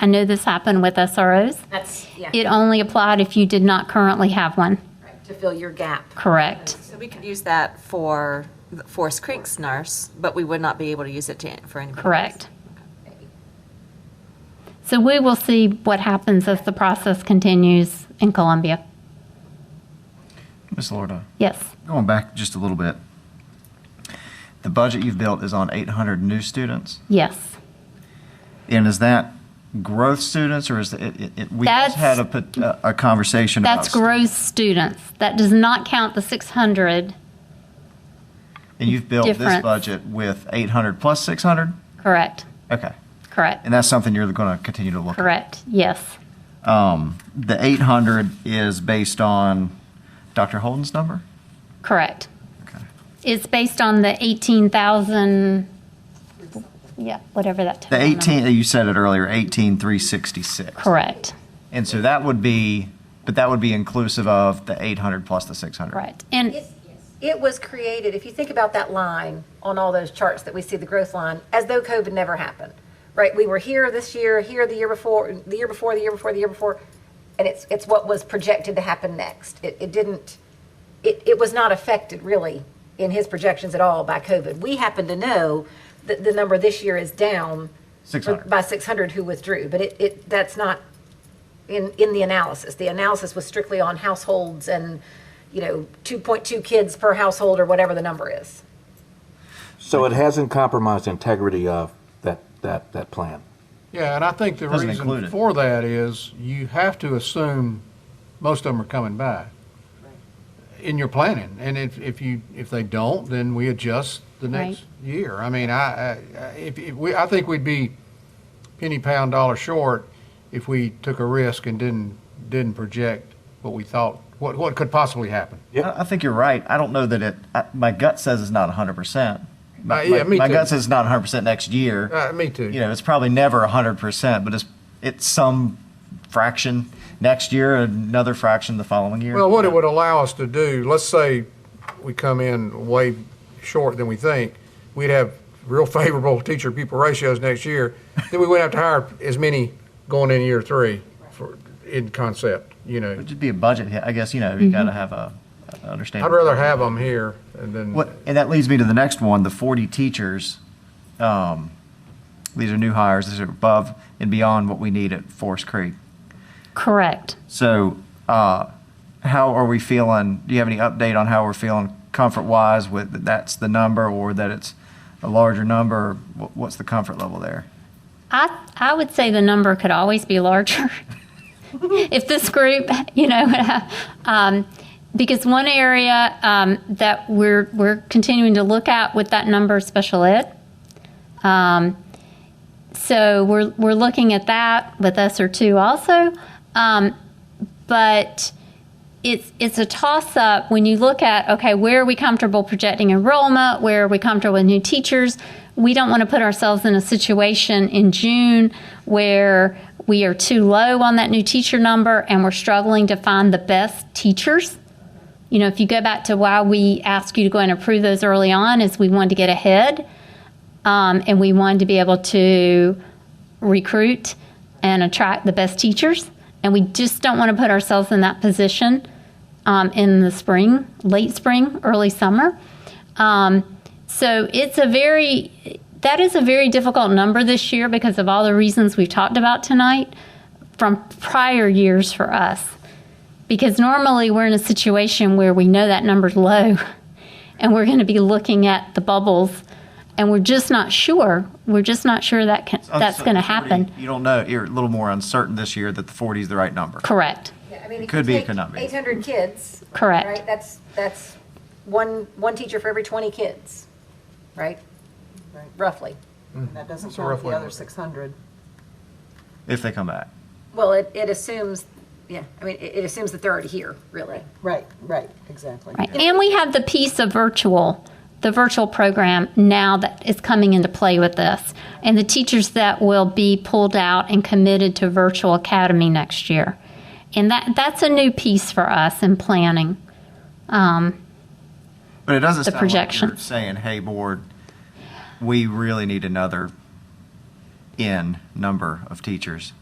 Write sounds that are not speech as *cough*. I know this happened with SROs. That's, yeah, It only applied if you did not currently have one, right, to fill your gap. correct? So we could use that for the Forest Creek's nurse, but we would not be able to use it to, for anybody. Correct. So we will see what happens as the process continues in Columbia. Ms. Lorda, Yes, going back just a little bit, the budget you've built is on 800 new students, yes. and is that growth students or is it? it, it we That's- just had a, pot- a, a conversation That's about gross students. That does not count the 600, students, and you've built this difference. budget with 800 plus 600. correct? Okay, Correct, and that's something you're going to continue to look. correct, yes. At. Um, the 800 is based on Dr. Holden's number. Correct. Okay. It's based on the 18,000, yeah, whatever that. The total number- 18 you said it earlier, 18366. Correct, And so that would be, but that would be inclusive of the 800 plus the 600. right. And It was created, if you think about that line on all those charts that we see, the growth line, as though COVID never happened, right? We were here this year, here the year before, the year before, the year before, the year before, and it's, it's what was projected to happen next. It, it didn't, it, it was not affected really in his projections at all by COVID. We happen to know that the number this year is down 600. by 600 who withdrew, but it, it, that's not in, in the analysis. The analysis was strictly on households and, you know, 2.2 kids per household or whatever the number is. So it hasn't compromised integrity of that, that, that plan. Yeah, and I think the Doesn't include reason it. for that is you have to assume most of them are coming back in your planning. And if, if you, if they don't, then we adjust the next year. I mean, I, I- I, if, if we, I think we'd be penny pound dollar short if we took a risk and didn't, didn't project what we thought, what, what could possibly happen. Yep. I I think you're right. I don't know that it, I, my gut says it's not 100%. My, Uh, yeah, my- me my too. gut says it's not 100% next year. Uh, me too. You know, it's probably never 100%, but it's, it's some fraction next year, another fraction the following year. Well, what it would allow us to do, let's say we come in way short than we think, we'd have real *laughs* favorable teacher pupil ratios next year, then we wouldn't have to hire as many going in year three for, in concept, you know. would just be a budget hit. I guess, you know, you got to have a, a understanding. I'd rather have them here and then. What, and that leads me to the next one, the 40 teachers. Um, these are new hires. These are above and beyond what we need at Forest Creek. correct. So, uh, how are we feeling? Do you have any update on how we're feeling comfort wise with that that's the number or that it's a larger number? Wh- What's the comfort level there? I, I would say the number could always be larger *laughs* if this group, *laughs* you know, um, because one area um, that we're we're continuing to look at with that number is special ed. Um, so we're we're looking at that with us or two also, um, but it's it's a toss up when you look at okay where are we comfortable projecting enrollment where are we comfortable with new teachers we don't want to put ourselves in a situation in June where we are too low on that new teacher number and we're struggling to find the best teachers you know if you go back to why we asked you to go and approve those early on is we wanted to get ahead um, and we wanted to be able to recruit and attract the best teachers. And we just don't want to put ourselves in that position um, in the spring, late spring, early summer. Um, so it's a very, that is a very difficult number this year because of all the reasons we've talked about tonight from prior years for us. Because normally we're in a situation where we know that number's low *laughs* and we're going to be looking at the bubbles and we're just not sure. We're just not sure that can, that's Uncertain- going to happen. You don't know. You're a little more uncertain this year that the 40 is the right number. Correct. It could be economic. Eight hundred kids. Correct. Right, that's, that's one, one teacher for every twenty kids, right? Roughly. That doesn't a rough count the way to other look at it. 600. If they come back, Well, it, it assumes, yeah, I mean, it, it assumes that they're already here, really. Right, right, exactly. Right. And we have the piece of virtual, the virtual program now that is coming into play with this. And the teachers that will be pulled out and committed to virtual academy next year. And that, that's a new piece for us in planning. but it doesn't. The sound like you're projections. saying, "Hey, board, we really need another n number of teachers."